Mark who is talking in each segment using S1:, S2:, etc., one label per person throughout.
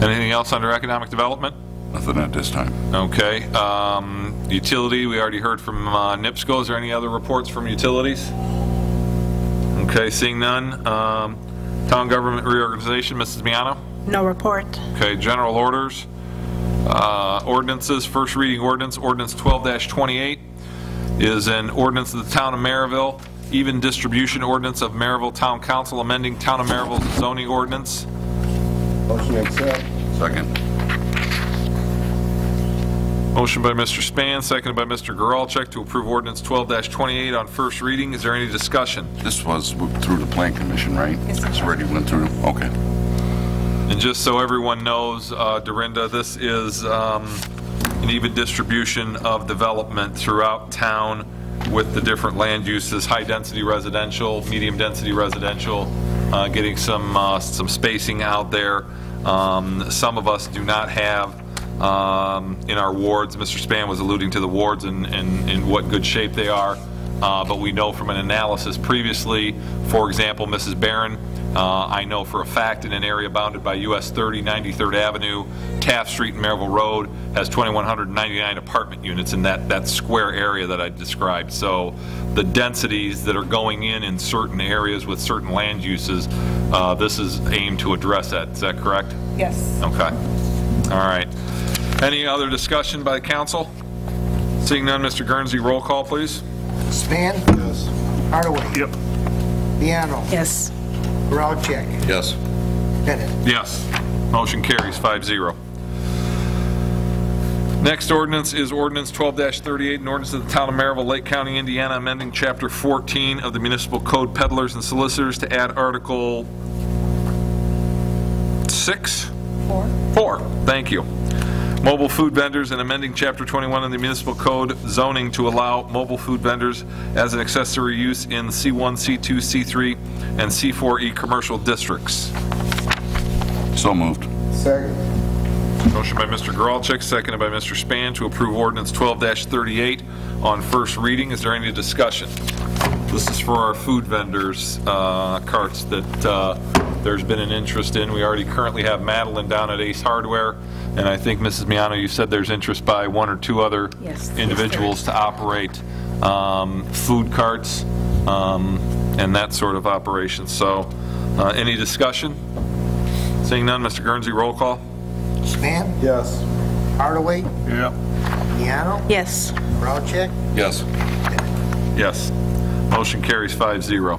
S1: Anything else under economic development?
S2: Nothing at this time.
S1: Okay. um, Utility, we already heard from uh, NIPSCO. Is there any other reports from utilities? Okay, seeing none. Um, Town government reorganization, Mrs. Miano?
S3: No report.
S1: Okay, general orders, uh, ordinances, first reading ordinance, ordinance 12-28 is an ordinance of the town of Maryville, even distribution ordinance of Maryville Town Council amending town of Maryville's zoning ordinance.
S4: Motion to accept.
S2: Second.
S1: Motion by Mr. Span, seconded by Mr. Geralcheck to approve ordinance 12-28 on first reading. Is there any discussion?
S2: This was through the Plan Commission, right?
S3: Yes, sir.
S2: It's already went through, okay.
S1: And just so everyone knows, uh, Dorinda, this is um, an even distribution of development throughout town with the different land uses, high-density residential, medium-density residential, uh, getting some, uh, some spacing out there. Um, Some of us do not have um, in our wards, Mr. Span was alluding to the wards and, and and what good shape they are. Uh, but we know from an analysis previously, for example, Mrs. Barron, uh, I know for a fact in an area bounded by US 30, 93rd Avenue, Taft Street, and Maryville Road has 2,199 apartment units in that, that square area that I described. So the densities that are going in in certain areas with certain land uses, uh, this is aimed to address that. Is that correct?
S3: Yes.
S1: Okay. All right. Any other discussion by council? Seeing none, Mr. Guernsey, roll call, please.
S4: Span? Yes. Hardaway? Yep. Piano?
S3: Yes.
S4: Geralcheck?
S2: Yes.
S4: Bennett?
S1: Yes. Motion carries 5-0. Next ordinance is ordinance 12-38, an ordinance of the Town of Maryville, Lake County, Indiana, amending Chapter 14 of the Municipal Code Peddlers and Solicitors to add Article 6?
S3: Four.
S1: Four, thank you. Mobile food vendors and amending Chapter 21 of the Municipal Code zoning to allow mobile food vendors as an accessory use in C1, C2, C3, and C4E commercial districts.
S2: So moved.
S4: Second.
S1: Motion by Mr. Geralcheck, seconded by Mr. Span to approve ordinance 12-38 on first reading. Is there any discussion? This is for our food vendors' uh, carts that uh, there's been an interest in. We already currently have Madeline down at Ace Hardware, and I think, Mrs. Miano, you said there's interest by one or two other
S3: Yes.
S1: individuals to operate um, food carts um, and that sort of operation. So, uh, any discussion? Seeing none, Mr. Guernsey, roll call.
S4: Span?
S5: Yes.
S4: Hardaway?
S5: Yeah.
S4: Piano?
S3: Yes.
S4: Geralcheck?
S2: Yes.
S1: Yes. Motion carries 5-0.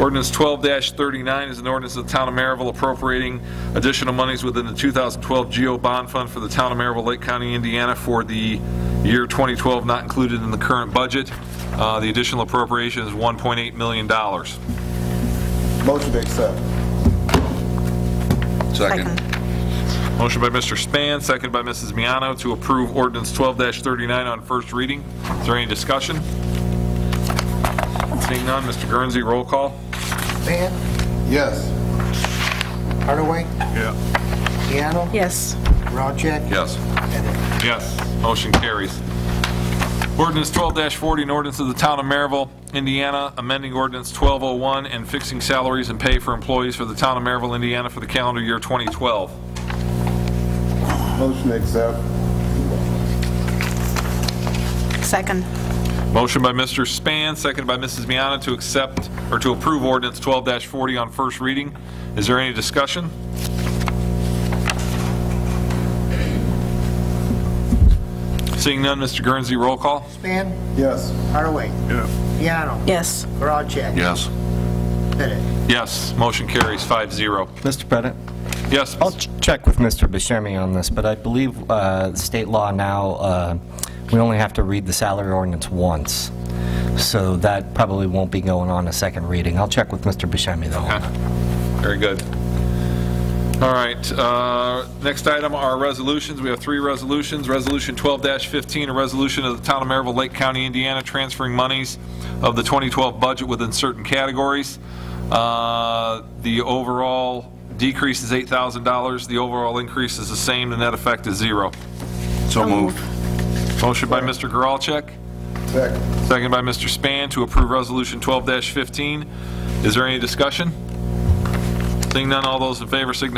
S1: Ordinance 12-39 is an ordinance of the Town of Maryville appropriating additional monies within the 2012 GO Bond Fund for the Town of Maryville, Lake County, Indiana for the year 2012 not included in the current budget. Uh, The additional appropriation is $1.8 million.
S5: Motion to accept.
S2: Second.
S3: Second.
S1: Motion by Mr. Span, second by Mrs. Miano to approve ordinance 12-39 on first reading. Is there any discussion? Seeing none, Mr. Guernsey, roll call.
S4: Span?
S5: Yes.
S4: Hardaway?
S5: Yeah.
S4: Piano?
S3: Yes.
S4: Geralcheck?
S1: Yes.
S4: Bennett?
S1: Yes. Motion carries. Ordinance 12-40, an ordinance of the Town of Maryville, Indiana, amending ordinance 1201 and fixing salaries and pay for employees for the Town of Maryville, Indiana for the calendar year 2012.
S5: Motion to accept.
S3: Second.
S1: Motion by Mr. Span, seconded by Mrs. Miana to accept, or to approve ordinance 12-40 on first reading. Is there any discussion? Seeing none, Mr. Guernsey, roll call.
S4: Span?
S5: Yes.
S4: Hardaway?
S5: Yeah.
S4: Piano?
S3: Yes.
S4: Geralcheck?
S2: Yes.
S4: Bennett?
S1: Yes, motion carries 5-0.
S6: Mr. Pettit?
S1: Yes,
S6: I'll ch- check with Mr. Buscemi on this, but I believe uh, the state law now, uh, we only have to read the salary ordinance once, so that probably won't be going on a second reading. I'll check with Mr. Buscemi, though.
S1: Okay. Very good. All right, uh, next item are resolutions. We have three resolutions. Resolution 12-15, a resolution of the Town of Maryville, Lake County, Indiana, transferring monies of the 2012 budget within certain categories. Uh, The overall decrease is $8,000. The overall increase is the same. The net effect is zero.
S2: So moved.
S1: Motion by Mr. Geralcheck,
S5: Second.
S1: second by Mr. Span to approve Resolution 12-15. Is there any discussion? Seeing none, all those in favor signify